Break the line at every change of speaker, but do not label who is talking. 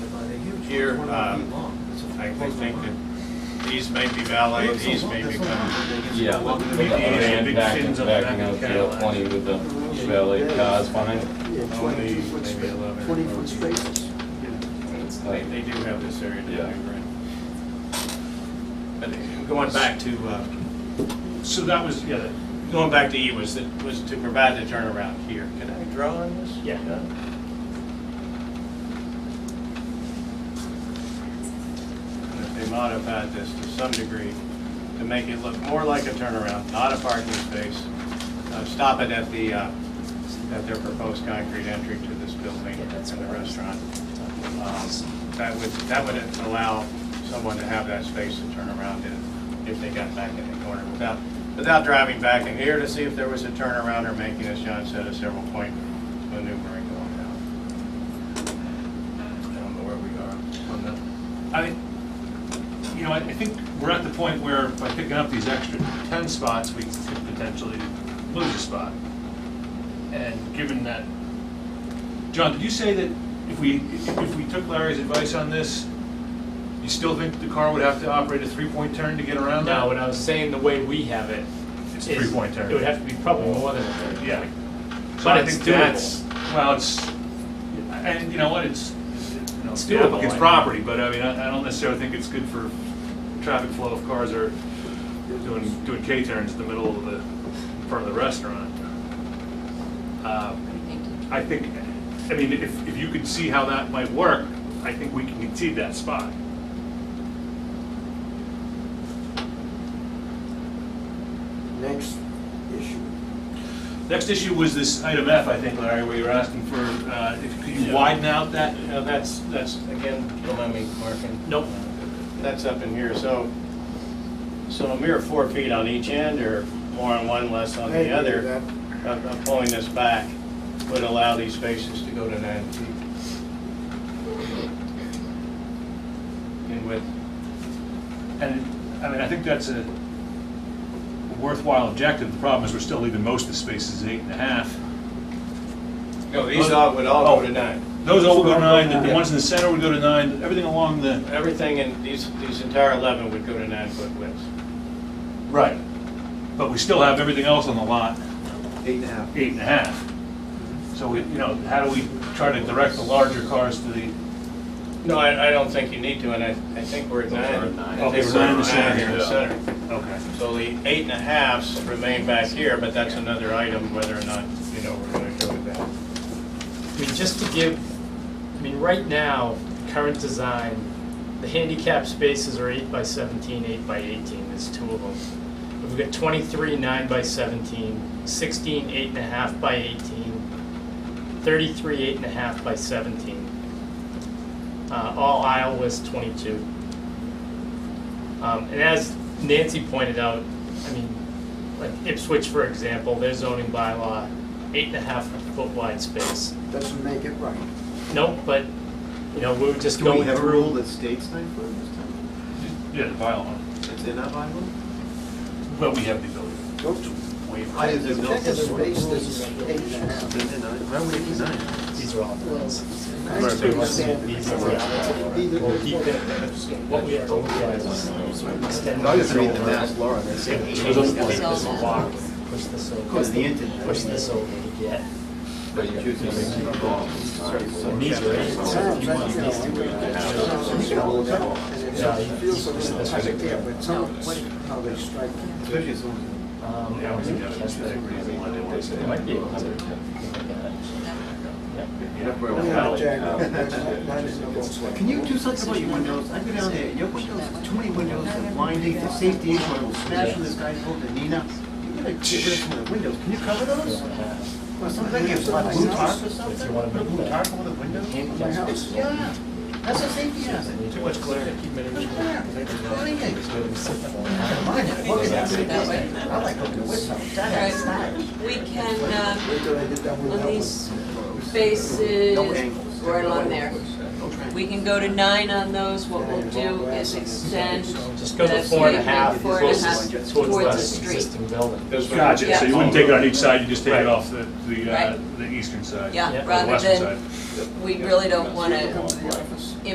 here. Um, I I think that these may be valid, these may be coming.
Yeah, but the
Maybe it's a
van
big
backing,
fins on the back
backing
of
out
the
the L
Cadillac.
twenty with the valet cars behind it,
Only maybe 11.
Twenty-foot spaces.
and it's
They,
tight.
they do have this area to do,
Yeah.
right? But going back to, uh, so that was, yeah, the- going back to E was, that- was to provide the turnaround here. Can I draw on this?
Yeah.
And if they modified this to some degree to make it look more like a turnaround, not a parking space, uh, stop it at the, uh, at their proposed concrete entry to this building
Yeah, that's
and the
what I was
restaurant. Um, That would, that would allow someone to have that space to turn around in if they got back in the corner without, without driving back in here to see if there was a turnaround or making, as John said, a several point maneuvering going down. I don't know where we are on that.
I, you know, I I think we're at the point where by picking up these extra 10 spots, we could potentially lose a spot. And given that, John, did you say that if we, if we took Larry's advice on this, you still think the car would have to operate a three-point turn to get around that?
No, when I was saying the way we have it.
It's
is-
three-point turn.
It would have to be probably more than a three.
Yeah. So
But
I
it's
think
doable.
that's- Well, it's, and you know what, it's, you know,
It's
it's
doable, I
applicant's
know.
property, but I mean, I I don't necessarily think it's good for traffic flow if cars are doing, doing K-turns in the middle of the, in front of the restaurant. Um, I think, I mean, if, if you could see how that might work, I think we can concede that spot.
Next issue.
Next issue was this item F, I think, Larry, where you were asking for, uh, if, could you widen out that?
Now, that's, that's, again, don't mind me marking.
Nope.
That's up in here, so, so a mere four feet on each end, or more on one, less
I
on the
agree with
other,
that.
of of pulling this back would allow these spaces to go to nine feet. In width.
And, I mean, I think that's a worthwhile objective. The problem is we're still leaving most of the spaces eight and a half.
No,
these all-
would
all go to
nine.
Those all go to nine, the
Yeah.
ones in the center would go to nine, everything along the.
Everything in, these, these entire 11 would go to nine foot widths.
Right. But we still have everything else on the lot,
Eight and a half.
eight and a half. So we, you know, how do we try to direct the larger cars to the,
No, I, I don't think you need to, and I, I think we're at nine.
We're at nine.
I think
Okay, we're nine in the center
here in the
here,
center.
okay.
So the eight and a halves remain back here, but that's another item, whether or not, you know, we're gonna go with that.
I mean, just to give, I mean, right now, current design, the handicap spaces are eight by 17, eight by eighteen, there's two of them. We've got twenty-three nine by 17, 16 eight and a half by eighteen, thirty-three eight and a half by seventeen. Uh, all aisle was twenty-two. Um, and as Nancy pointed out, I mean, like Ipswich, for example, their zoning bylaw, eight and a half foot wide space.
Doesn't make it right.
No, but, you know, we were just
Do we
going
have a rule
through.
that states nine foot this time?
Yeah, the violent.
It's in that bylaw?
But we have the ability
Go to,
to waive.
I didn't know.
check the space that's eight and a half.
Isn't it nine? Why would it be nine?
These are all rules.
Nice to understand.
These are all- We'll keep it, what we have to look at is extend
I just
this
read the math,
over.
Laura, and I said,
Change this block, push this over.
Because the internet.
Push this over to get.
But you could just keep it long.
And these are eight, so if you want these to be eight and a half.
Sounds like, you know, and it feels a little tight there, but some, how they strike it.
especially someone.
Um,
Yeah, we can
that's the reason why they want to- It might be. Yeah.
Yeah, Jack, that's not- that is no good way.
Can you do something about your windows? I've been down there, your windows, there's too many windows, they're blinding, the safety issue, I will smash on this guy's over the Nina. You gotta get rid of some of the windows, can you cover those? Or something, you have a blue tarp or something,
wanna
put a blue
make that-
tarp over the windows?
Handicap spaces.
Yeah, that's a safety hazard.
Too much glare. Keep it in.
Look at that. What do you think? Mine, look at
That way.
that. I like looking at what's up. That is nice.
We can, um,
Wait till I get done with
on
that one.
these spaces,
No angles.
right along there,
No triangles.
we can go to nine on those, what we'll do is extend.
Just go to
the
four and a
pavement
half
four and a half
closest towards
towards the
the
street.
existing building.
Those would-
Gotcha, so you wouldn't take it on each side, you just take it
Right.
off the, the, uh,
Right.
the eastern side.
Yeah,
Yeah.
Or the
rather
western
than,
side.
we really don't wanna